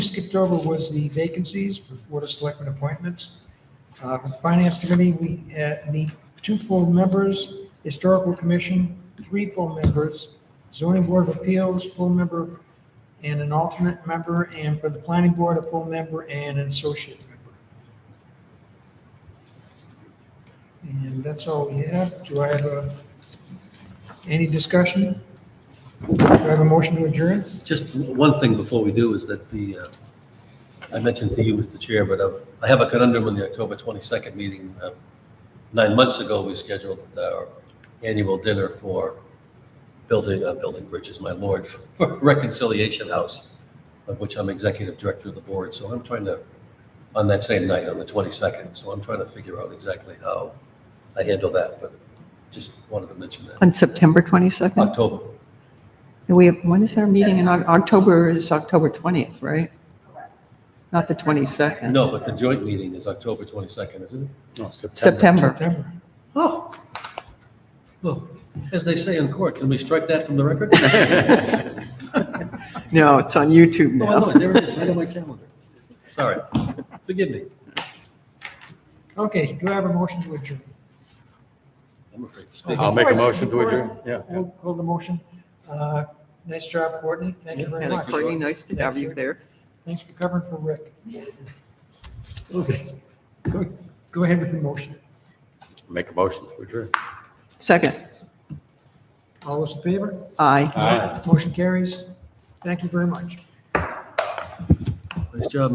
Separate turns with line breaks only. skipped over was the vacancies for Board of Selectmen appointments. Uh, For the Finance Committee, we uh, need two full members, Historical Commission, three full members, Zoning Board of Appeals, full member, and an alternate member, and for the Planning Board, a full member and an associate member. And that's all we have. Do I have a- any discussion? Do I have a motion to adjourn?
Just one thing before we do is that the, uh, I mentioned to you, Mr. Chair, but uh, I have a conundrum in the October 22nd meeting. Uh, Nine months ago, we scheduled our annual dinner for building, uh, building bridges, my lord, for Reconciliation House, of which I'm executive director of the board. So I'm trying to, on that same night, on the 22nd, so I'm trying to figure out exactly how I handle that, but just wanted to mention that.
On September 22nd?
October,
And We have, when is our meeting in, Oc- October is October 20th, right? Not the 22nd?
no, but the joint meeting is October 22nd, isn't it?
No, September.
September.
September.
Oh, well, as they say in court, can we strike that from the record?
No, it's on YouTube
Oh,
now.
no, there it is, right on my calendar. Sorry, forgive me.
Okay, do I have a motion to adjourn?
I'm afraid to speak.
I'll make a
Before-
motion to
before-
adjourn. Yeah.
Hold hold the motion. Uh, Nice job, Courtney. Thank you very
Yes,
much.
Courtney, nice to have you there.
Thanks for covering for Rick. Okay, go- go ahead with the motion.
Make a motion to adjourn.
Second,
All those in favor?
aye.
Aye.
Motion carries. Thank you very much.
Nice job,